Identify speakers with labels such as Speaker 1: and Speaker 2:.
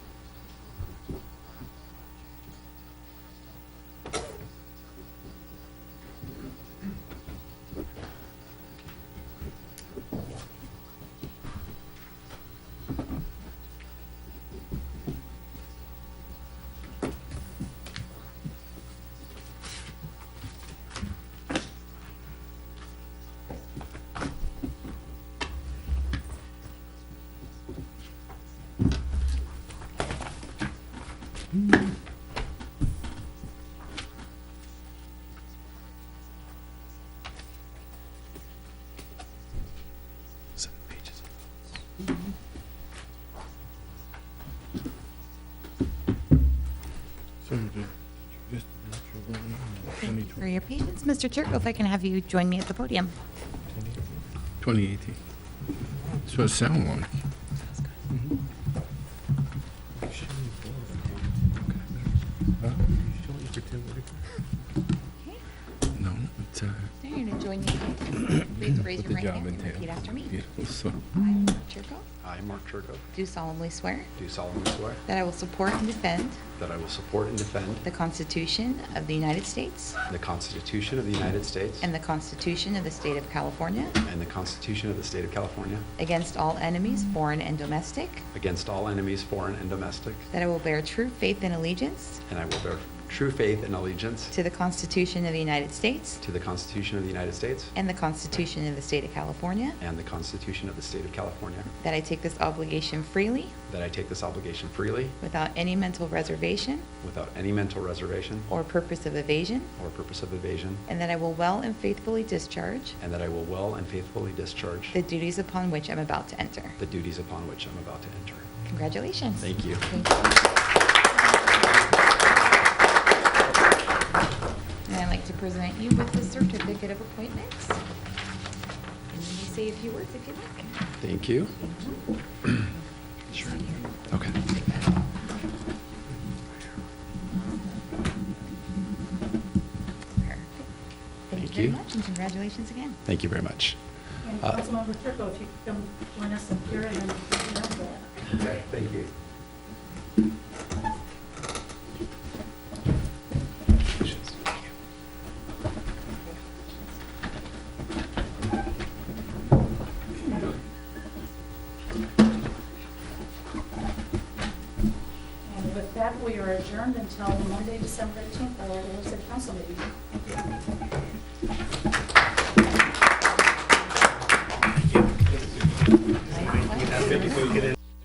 Speaker 1: Seven pages.
Speaker 2: Thank you for your patience. Mr. Turco, if I can have you join me at the podium.
Speaker 1: 2018. That's what it sound like. No, it's, uh,
Speaker 2: Sir, You're going to join me. Please raise
Speaker 1: put
Speaker 2: your
Speaker 1: the
Speaker 2: right
Speaker 1: job
Speaker 2: hand
Speaker 1: in
Speaker 2: and repeat
Speaker 1: here.
Speaker 2: after me.
Speaker 1: Beautiful, so,
Speaker 2: I, Mark Turco,
Speaker 3: I, Mark Turco,
Speaker 2: do solemnly swear
Speaker 3: do solemnly swear
Speaker 2: that I will support and defend
Speaker 3: that I will support and defend
Speaker 2: the Constitution of the United States
Speaker 3: the Constitution of the United States
Speaker 2: and the Constitution of the State of California
Speaker 3: and the Constitution of the State of California
Speaker 2: against all enemies, foreign and domestic,
Speaker 3: against all enemies, foreign and domestic,
Speaker 2: that I will bear true faith and allegiance
Speaker 3: and I will bear true faith and allegiance
Speaker 2: to the Constitution of the United States
Speaker 3: to the Constitution of the United States
Speaker 2: and the Constitution of the State of California,
Speaker 3: and the Constitution of the State of California,
Speaker 2: that I take this obligation freely
Speaker 3: that I take this obligation freely
Speaker 2: without any mental reservation
Speaker 3: without any mental reservation
Speaker 2: or purpose of evasion,
Speaker 3: or purpose of evasion,
Speaker 2: and that I will well and faithfully discharge
Speaker 3: and that I will well and faithfully discharge
Speaker 2: the duties upon which I'm about to enter.
Speaker 3: the duties upon which I'm about to enter.
Speaker 2: Congratulations.
Speaker 3: Thank you.
Speaker 2: And I'd like to present you with the certificate of appointments. And then you say a few words if you'd like.
Speaker 3: Thank you. Sure. Okay.
Speaker 2: Perfect. Thank you
Speaker 3: Thank
Speaker 2: very
Speaker 3: you.
Speaker 2: much, and congratulations again.
Speaker 3: Thank you very much.
Speaker 4: And
Speaker 3: Uh,
Speaker 4: Councilmember Turco, if you could come join us up here and then we can have that.
Speaker 3: Okay, thank you.
Speaker 4: And with that, we are adjourned until Monday, December 18th, our regular city council meeting.